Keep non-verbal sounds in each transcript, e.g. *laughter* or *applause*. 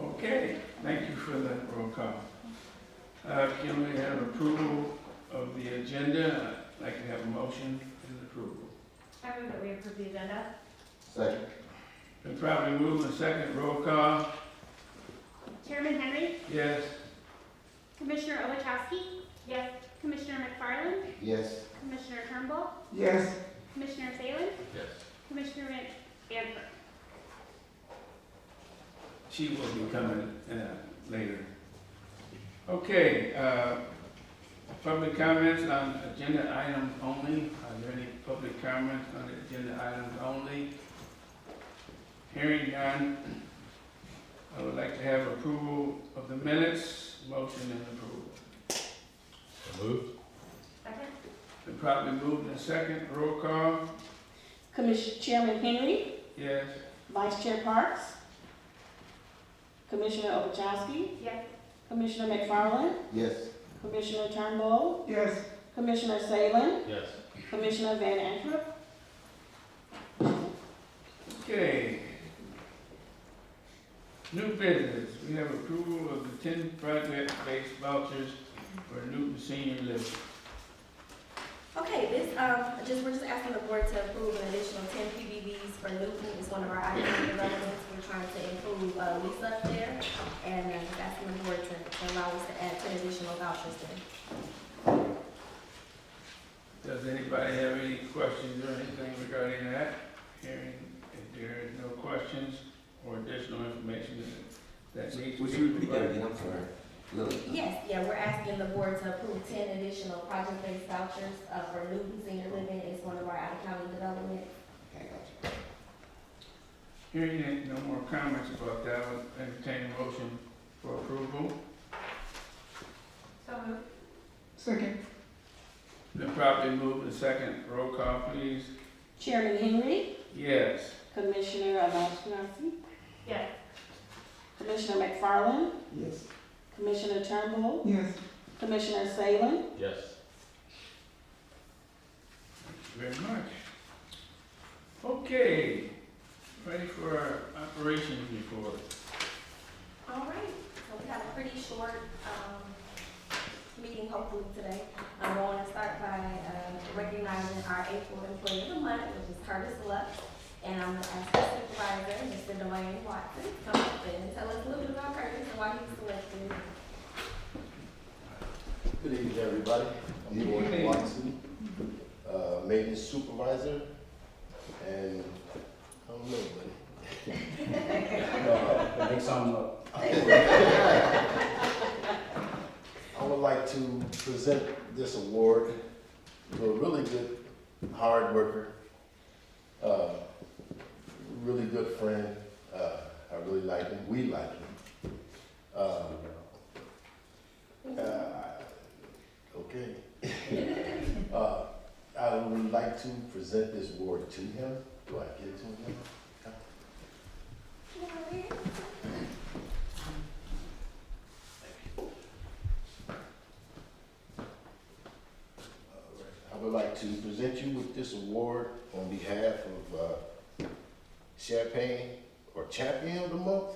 Okay, thank you for that roll call. Uh, Can we have approval of the agenda? I'd like to have a motion and approval. I move that we approve the agenda. Second. Been probably moved and second roll call. Chairman Henry, Yes, Commissioner Ovechowski, Yes. Commissioner McFarland, Yes. Commissioner Turnbull, Yes. Commissioner Salem, Yes. Commissioner Van Antwerp. she will be coming uh, later. Okay, uh, public comments on agenda items only. Are there any public comments on agenda items only? Hearing none. I would like to have approval of the minutes, motion and approval. Move. Second? Been probably moved in second, roll call, Commissioner Chairman Henry, yes. Vice Chair Parks, Commissioner Ovechowski, Yes. Commissioner McFarland, Yes. Commissioner Turnbull, Yes. Commissioner Salem, Yes. Commissioner Van Antwerp, Okay. New business, we have approval of the ten project-based vouchers for Newton Senior Living. Okay, this, um, just, we're just asking the board to approve an additional ten PBVs for Newton, it's one of our IDP developments, we're trying to improve, uh, lease up there, and I'm just asking the board to, to allow us to add ten additional vouchers there. Does anybody have any questions or anything regarding that? Hearing, if there is no questions or additional information that that needs to Would be you repeat that provided. again? I'm sorry. Lily. Yes, yeah, we're asking the board to approve ten additional project-based vouchers, uh, for Newton Senior Living, it's one of our out-of-county developments. Okay, gotcha. Hearing that, no more comments about that, I would entertain a motion for approval. So moved. Second. Then properly moved to second, roll call please. Chairman Henry, Yes. Commissioner Ovechowski, Yes. Commissioner McFarland, Yes. Commissioner Turnbull. Yes. Commissioner Salem, Yes. Very much. Okay, ready for our operations report. All right, so we had a pretty short, um, meeting hopefully today. Um, I want to start by, uh, recognizing our April employee of the month, which is Curtis Lux. And I'm gonna ask the supervisor, Mr. Dwayne Watson, to come up and tell us a little bit about Curtis and why he was selected. Good evening, everybody. I'm Good Dwayne evening. Watson, uh, maintenance supervisor, and I don't know, buddy. Make something up. I would like to present this award to a really good, hard worker, uh, really good friend. Uh, I really like him, we like him. Uh, uh, Okay. *laughs* Uh, I would like to present this award to him. Do I get to him? Uh, I would like to present you with this award on behalf of uh, Champagne or Champion of the Month,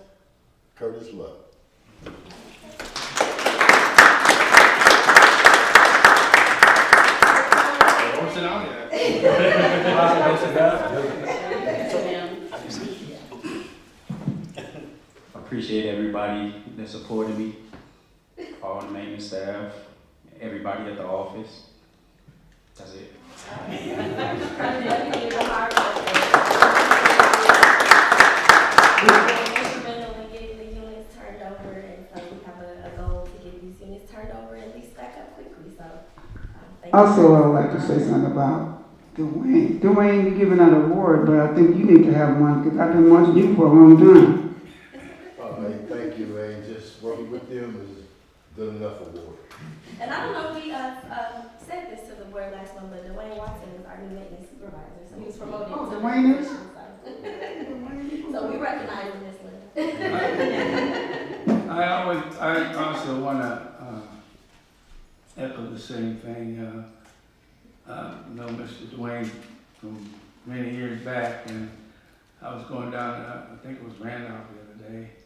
Curtis Love. What's it on there? Ma'am. appreciate everybody that supported me, all the maintenance staff, everybody at the office. That's it. Curtis, you did a hard work. Instrumental in getting the units turned over, and so we have a, a goal to get these units turned over and leased back up quickly, so, um, thank you. Also, I would like to say something about Dwayne. Dwayne, you're giving out an award, but I think you need to have one because I've been watching you for a long time. Uh, hey, thank you, man. Just working with them is good enough award. And I don't know if we, uh, um, said this to the board last month, but Dwayne Watson is our new maintenance supervisor, so he was promoted. Oh, to- Dwayne is? *laughs* So we recognize him this one. I always, I also wanna, uh, echo the same thing, uh, uh, know Mr. Dwayne from many years back, and I was going down, uh, I think it was Randolph the other day,